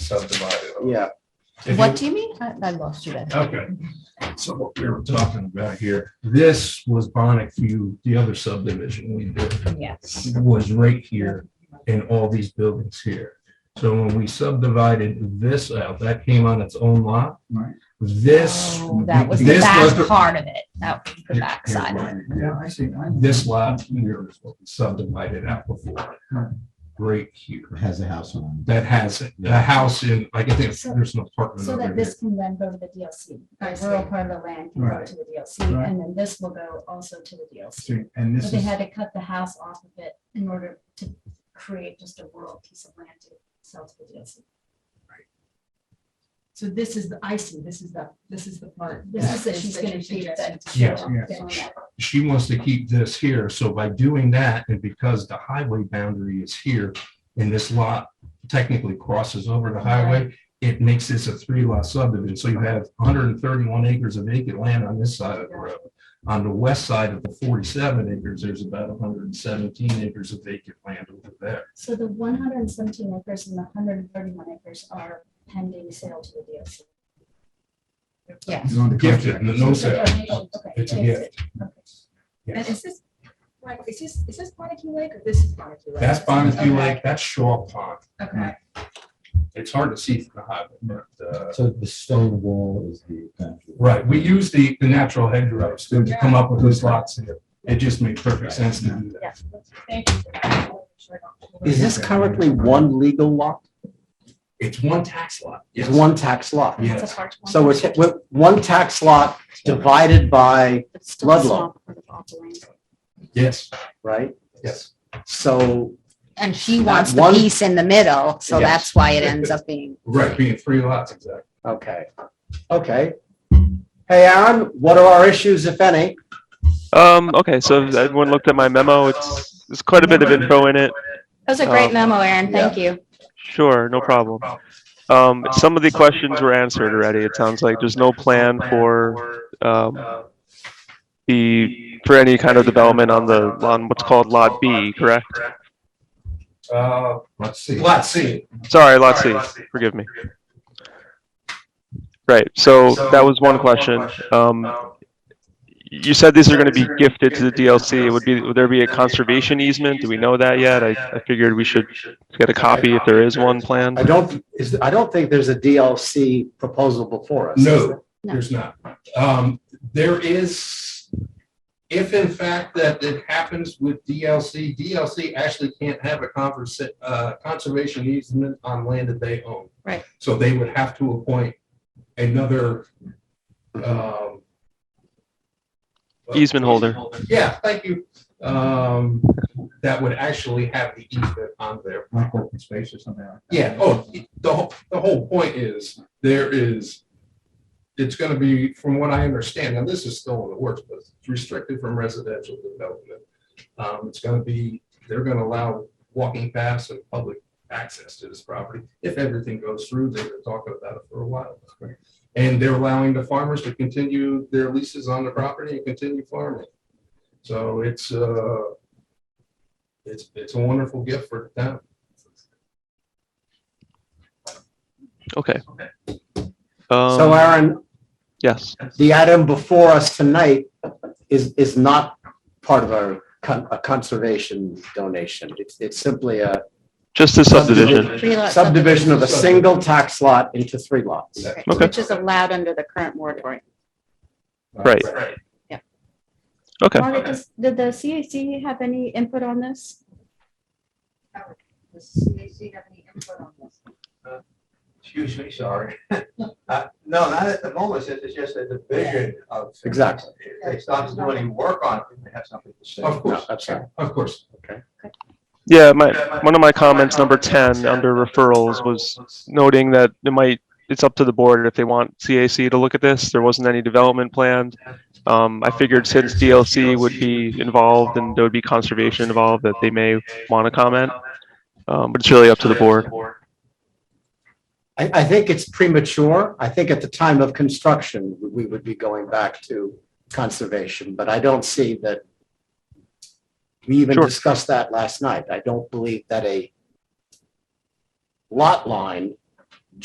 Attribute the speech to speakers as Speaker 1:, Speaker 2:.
Speaker 1: subdivided.
Speaker 2: Yeah,
Speaker 1: If
Speaker 3: What
Speaker 1: you- Uh,
Speaker 3: do you mean? I, I lost you there.
Speaker 1: Okay, so what we were talking about here, this was Bonnet View, the other subdivision we did.
Speaker 3: Yes.
Speaker 1: was right here and all these buildings here. So when we subdivided this out, that came on its own lot.
Speaker 2: Right.
Speaker 1: This.
Speaker 3: Oh, That was the
Speaker 1: this was
Speaker 3: back
Speaker 1: the-
Speaker 3: part of it. That was the
Speaker 1: Here-
Speaker 3: back
Speaker 1: here,
Speaker 3: side.
Speaker 1: right.
Speaker 2: yeah, I see. I-
Speaker 1: This lot here is what we subdivided out before, right here.
Speaker 4: has a house on
Speaker 1: That has a house in, I can think, there's an apartment
Speaker 5: So
Speaker 1: over
Speaker 5: that
Speaker 1: there.
Speaker 5: this can then go to the DLC,
Speaker 3: I
Speaker 5: the
Speaker 3: see.
Speaker 5: rural part of the land can go
Speaker 2: Right.
Speaker 5: to the DLC,
Speaker 2: Right.
Speaker 5: and then this will go also to the DLC.
Speaker 2: See, And
Speaker 5: But
Speaker 2: this
Speaker 5: they
Speaker 2: is,
Speaker 5: had to cut the house off of it in order to create just a rural piece of land to sell to the DLC.
Speaker 6: So this is the icing, this is the, this is the part.
Speaker 5: This is that she's gonna keep that.
Speaker 1: Yes.
Speaker 2: Yes.
Speaker 5: Yeah.
Speaker 1: She wants to keep this here, so by doing that, and because the highway boundary is here, and this lot technically crosses over the highway, it makes this a three lot subdivision, so you have hundred and thirty-one acres of vacant land on this side of the road. On the west side of the forty-seven acres, there's about hundred and seventeen acres of vacant land over there.
Speaker 5: So the one hundred and seventeen acres and the hundred and thirty-one acres are pending sale to the DLC.
Speaker 3: Yes.
Speaker 2: he's on the
Speaker 1: Gifted,
Speaker 2: contract.
Speaker 1: no
Speaker 5: It's a
Speaker 1: sale.
Speaker 5: donation, okay,
Speaker 1: It's a
Speaker 5: okay.
Speaker 1: gift.
Speaker 5: Okay.
Speaker 6: And
Speaker 1: Yes.
Speaker 6: is this, right, is this, is this Bonneque Lake or this is Bonneque Lake?
Speaker 1: That's Bonneville
Speaker 6: Okay,
Speaker 1: Lake, that's Shaw Pond.
Speaker 6: Okay,
Speaker 1: It's hard to see from the highway, but, uh,
Speaker 4: it. So the stone wall is the. boundary.
Speaker 1: Right, we use the, the natural hedgerows to to come up with those lots. and It just made perfect sense to do that.
Speaker 6: thank you. for that. I'll make sure I don't-
Speaker 2: Is this currently one
Speaker 7: legal lot?
Speaker 1: It's one tax lot.
Speaker 7: It's
Speaker 1: yes.
Speaker 7: one tax lot.
Speaker 5: That's a
Speaker 1: Yes.
Speaker 5: part one.
Speaker 7: So it's we're- one tax lot divided by,
Speaker 5: It's still a
Speaker 7: Ludlow.
Speaker 5: small part of all the land.
Speaker 1: Yes,
Speaker 7: right?
Speaker 1: yes.
Speaker 7: So,
Speaker 3: And she wants the
Speaker 7: one-
Speaker 3: piece in the middle, so
Speaker 7: Yes.
Speaker 3: that's why it ends up being.
Speaker 1: Right, being three lots, exactly.
Speaker 7: okay, okay. Hey, Aaron, what are our issues, if any?
Speaker 8: Um, okay, so if everyone looked at my memo. It's, there's quite a bit of info in it.
Speaker 3: That was
Speaker 7: a great
Speaker 3: memo, Aaron.
Speaker 7: Thank
Speaker 3: you.
Speaker 8: Sure, no problem. Um, some of the questions were answered already. It sounds like there's no plan for, um, the, for any kind of development on the, on what's called Lot B, correct?
Speaker 1: Uh,
Speaker 4: Let's see.
Speaker 1: lot C.
Speaker 8: Sorry, Lot C, forgive me. Right, so that was one question. Um, you said these are gonna be gifted to the DLC. Would be, would there be a conservation easement? Do we know that yet? I, I figured we should get a copy if there is one planned.
Speaker 7: I don't, is, I don't think there's a DLC proposal before us. is there?
Speaker 1: No,
Speaker 3: No.
Speaker 1: there's not. Um, there is, if in fact that it happens with DLC, DLC actually can't have a conversa, uh, conservation easement on land that they own.
Speaker 3: Right.
Speaker 1: So they would have to appoint another, um.
Speaker 8: Easement holder.
Speaker 1: Yeah, thank you. Um, that would actually have the easement on their
Speaker 2: Like open space or something like that.
Speaker 1: yeah, oh, the whole, the whole point is, there is, it's gonna be, from what I understand, and this is still in the works, but it's restricted from residential development. Um, it's gonna be, they're gonna allow walking paths and public access to this property. If everything goes through, they've been talking about it for a while. And they're allowing the farmers to continue their leases on the property and continue farming. So it's, uh, it's, it's a wonderful gift for the town.
Speaker 8: Okay.
Speaker 7: So uh,
Speaker 8: Um,
Speaker 7: Aaron,
Speaker 8: yes,
Speaker 7: the item before us tonight is, is not part of our con- a conservation donation. It's, it's simply a
Speaker 8: just a subdivision.
Speaker 7: subdivision of a single tax lot into three lots.
Speaker 8: Okay.
Speaker 3: Which is allowed under the current moratorium.
Speaker 8: Right.
Speaker 1: Right.
Speaker 8: Okay.
Speaker 3: Margaret, does- did the CAC have any input on this?
Speaker 6: Does CAC have any input on this?
Speaker 9: Excuse me, sorry. Uh, No, not at the moment, since it's just a division of. things.
Speaker 7: Exactly.
Speaker 9: If They stop to do any work on it, then they have something to say.
Speaker 1: Of
Speaker 7: No,
Speaker 1: course,
Speaker 7: that's right.
Speaker 1: of course.
Speaker 8: Yeah, my, one of my comments, number ten, under referrals, was noting that it might, it's up to the board if they want CAC to look at this. There wasn't any development planned. Um, I figured since DLC would be involved and there would be conservation involved, that they may want to comment. Um, but it's really up to the board.
Speaker 7: I, I think it's premature. I think at the time of construction, we- we would be going back to conservation, but I don't see that. We even
Speaker 8: Sure.
Speaker 7: discussed that last night. I don't believe that a lot line